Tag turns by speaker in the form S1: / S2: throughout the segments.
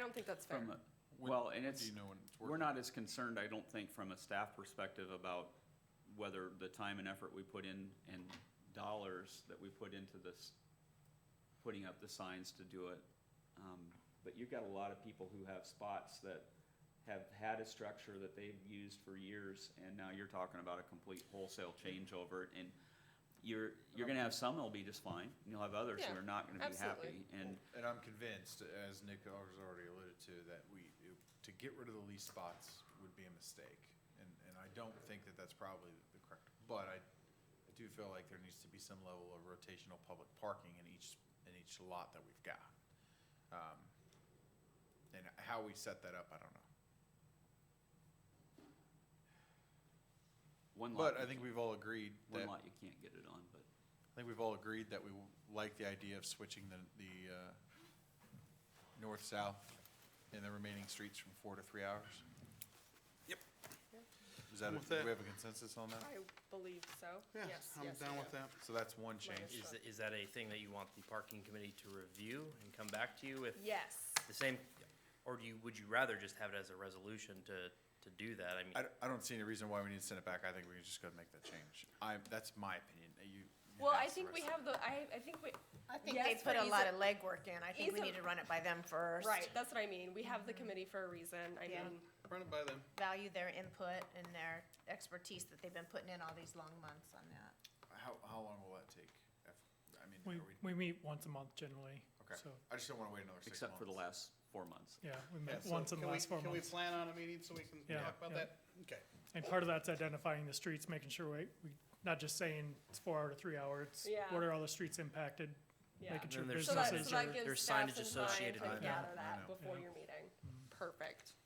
S1: don't think that's fair.
S2: From a-
S3: When-
S2: Well, and
S3: when
S2: it's,
S3: Do you know when it's working?
S2: we're not as concerned, I don't think, from a staff perspective about whether the time and effort we put in and dollars that we put into this, putting up the signs to do it. Um, But you've got a lot of people who have spots that have had a structure that they've used for years, and now you're talking about a complete wholesale changeover, and you're, you're gonna have some that'll be just fine, and you'll have others who
S1: Yeah,
S2: are not gonna be happy,
S1: absolutely.
S2: and,
S3: And I'm convinced, as Nick has already alluded to, that we, to get rid of the lease spots would be a mistake. And, and I don't think that that's probably the correct, but I, I do feel like there needs to be some level of rotational public parking in each, in each lot that we've got. Um, And how we set that up, I don't know.
S2: one lot,
S3: But I think we've all agreed
S2: one
S3: that,
S2: lot you can't get it on, but.
S3: I think we've all agreed that we like the idea of switching the, the, uh, north-south and the remaining streets from four to three hours. Is that,
S4: I'm
S3: a-
S4: with
S3: do
S4: that.
S3: we have a consensus on that?
S1: I believe so.
S4: Yeah,
S1: Yes,
S4: I'm
S1: yes,
S4: down
S1: yeah.
S4: with that.
S3: So that's one
S1: Minus
S3: change.
S5: Is, is that a thing that you want the parking committee to review and come back to you with
S1: Yes.
S5: the same? Or do you, would you rather just have it as a resolution to, to do that? I mean,
S3: I, d- I don't see any reason why we need to send it back. I think we can just go and make that change. I, that's my opinion. Uh, You. you
S1: Well, I
S3: asked the
S1: think we
S3: rest
S1: have
S3: of-
S1: the, I, I think we,
S6: I think
S1: Yes,
S6: they put
S1: but he's
S6: a lot
S1: a-
S6: of legwork in. I think
S1: he's
S6: we
S1: a-
S6: need to run it by them first.
S1: right, that's what I mean. We have the committee for a reason. I
S6: Yeah.
S1: mean,
S4: Run it by them.
S6: Value their input and their expertise that they've been putting in all these long months on that.
S3: How, how long will that take? If- I mean,
S7: We,
S3: are we,
S7: we meet once a month generally,
S3: okay.
S7: so,
S3: I just don't want to wait another six
S2: except
S3: months.
S2: for the last four months.
S7: yeah, we
S4: Yeah,
S7: met
S4: so
S7: once in the
S4: can we-
S7: last four
S4: Can we
S7: months.
S4: plan on a meeting so we can
S7: Yeah,
S4: talk about that?
S7: yeah.
S4: Okay.
S7: And part of that's identifying the streets, making sure we, we, not just saying it's four hour to three hour, it's
S1: Yeah.
S7: what are all the streets impacted?
S1: yeah.
S7: Making sure
S5: Then there's
S1: So that,
S7: businesses
S1: so
S7: are,
S1: that gives
S5: there's
S1: staff
S5: signage
S1: some time to
S5: associated
S1: gather
S3: with that. I
S1: that
S3: know.
S1: before
S7: Yeah.
S1: your meeting. Perfect.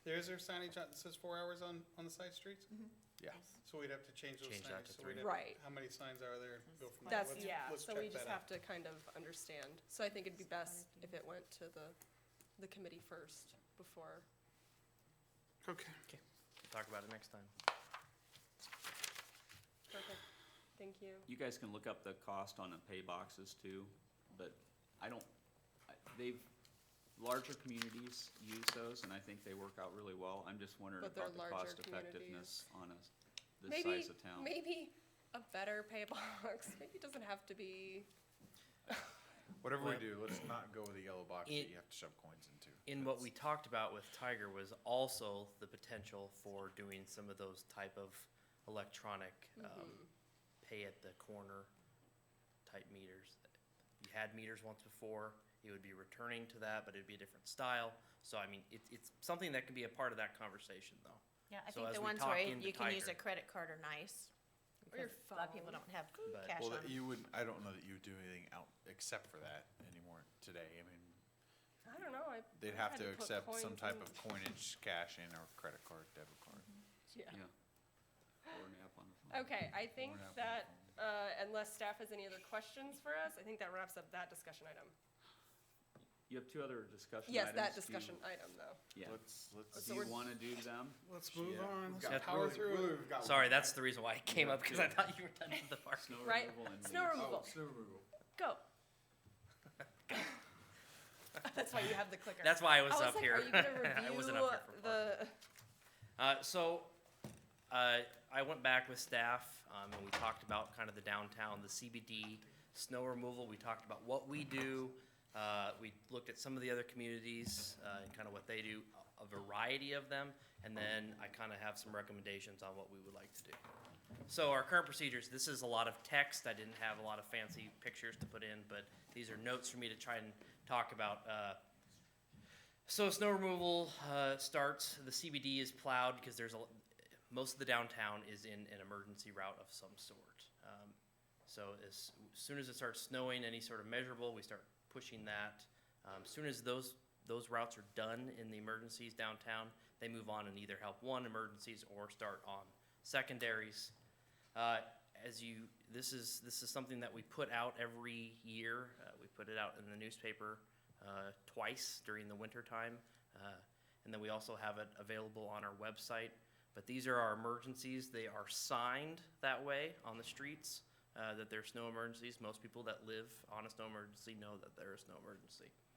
S4: There is there signage on- that says four hours on, on the side streets?
S3: Yeah.
S4: So we'd have to change those
S5: Change that
S4: signs. So
S5: to
S4: we'd
S5: three.
S4: have-
S1: Mm-hmm. Right.
S4: How many signs are there? and Go from there.
S1: That's,
S4: Let's-
S1: yeah,
S4: let's
S1: so we just
S4: check that
S1: have
S4: out.
S1: to kind of understand. So I think it'd be best if it went to the, the committee first before.
S4: Okay.
S5: talk about it next time.
S1: Perfect. Thank you.
S2: You guys can look up the cost on the pay boxes too, but I don't, I- they've, larger communities use those and I think they work out really well. I'm just wondering
S1: But they're
S2: about the
S1: larger
S2: cost effectiveness on a, this
S1: Maybe,
S2: size of town.
S1: maybe a better pay box, maybe it doesn't have to be,
S3: Whatever we do,
S5: Well-
S3: let's not go with the yellow box that
S5: It-
S3: you have to shove coins into.
S5: In what we talked about with Tiger was also the potential for doing some of those type of electronic, um, pay at the corner type meters. You had meters once before, it would be returning to that, but it'd be a different style. So I mean, it's, it's something that can be a part of that conversation though.
S6: Yeah, I
S5: So
S6: think
S5: as
S6: the
S5: we
S6: ones
S5: talk
S6: where
S5: into
S6: you can use
S5: Tiger-
S6: a credit card are nice.
S1: Or your
S6: because A lot of people
S1: phone.
S6: don't have
S5: But-
S6: cash
S3: Well,
S6: on
S3: that
S6: them.
S3: you would, I don't know that you would do anything out, except for that anymore today. I mean,
S1: I don't know, I.
S3: they'd
S1: had
S3: have to
S1: put
S3: accept some
S1: coins
S3: type
S1: in-
S3: of coinage, cash in or credit card, debit card.
S1: Yeah.
S2: Yeah. Or an app on the phone.
S1: Okay, I think
S3: Or an app on the
S1: that,
S3: phone.
S1: uh, unless staff has any other questions for us, I think that wraps up that discussion item.
S2: You have two other discussion items.
S1: Yes, that
S2: Do you-
S1: discussion item though.
S2: Yeah.
S3: Let's, let's.
S1: So
S2: Do you
S1: we're-
S2: wanna do them?
S4: Let's move
S3: Yeah.
S4: on.
S3: We've
S4: Let's
S3: got-
S4: power
S3: really- really,
S4: through.
S3: we've got
S5: Sorry, that's the reason why it came up, because I thought you were done with the parking.
S2: Snow
S1: Right.
S2: removal and
S1: Snow
S2: leaves.
S1: removal,
S3: snow removal.
S1: go. That's why you have the clicker.
S5: That's why I was
S1: I was
S5: up
S1: like,
S5: here.
S1: Are you gonna
S5: I wasn't
S1: review
S5: up here for parking.
S1: the,
S5: Uh, so, uh, I went back with staff, um, and we talked about kind of the downtown, the CBD, snow removal, we talked about what we do. Uh, we looked at some of the other communities, uh, and kind of what they do, a variety of them, and then I kind of have some recommendations on what we would like to do. So our current procedures, this is a lot of text, I didn't have a lot of fancy pictures to put in, but these are notes for me to try and talk about, uh, so snow removal uh, starts. The CBD is plowed because there's a l- most of the downtown is in an emergency route of some sort. Um, so as soon as it starts snowing, any sort of measurable, we start pushing that. Um, soon as those those routes are done in the emergencies downtown, they move on and either help one emergencies or start on secondaries. Uh, as you, this is this is something that we put out every year. Uh, we put it out in the newspaper uh, twice during the winter time, uh, and then we also have it available on our website. But these are our emergencies. They are signed that way on the streets uh, that there's no emergencies. Most people that live on a snow emergency know that there is no emergency.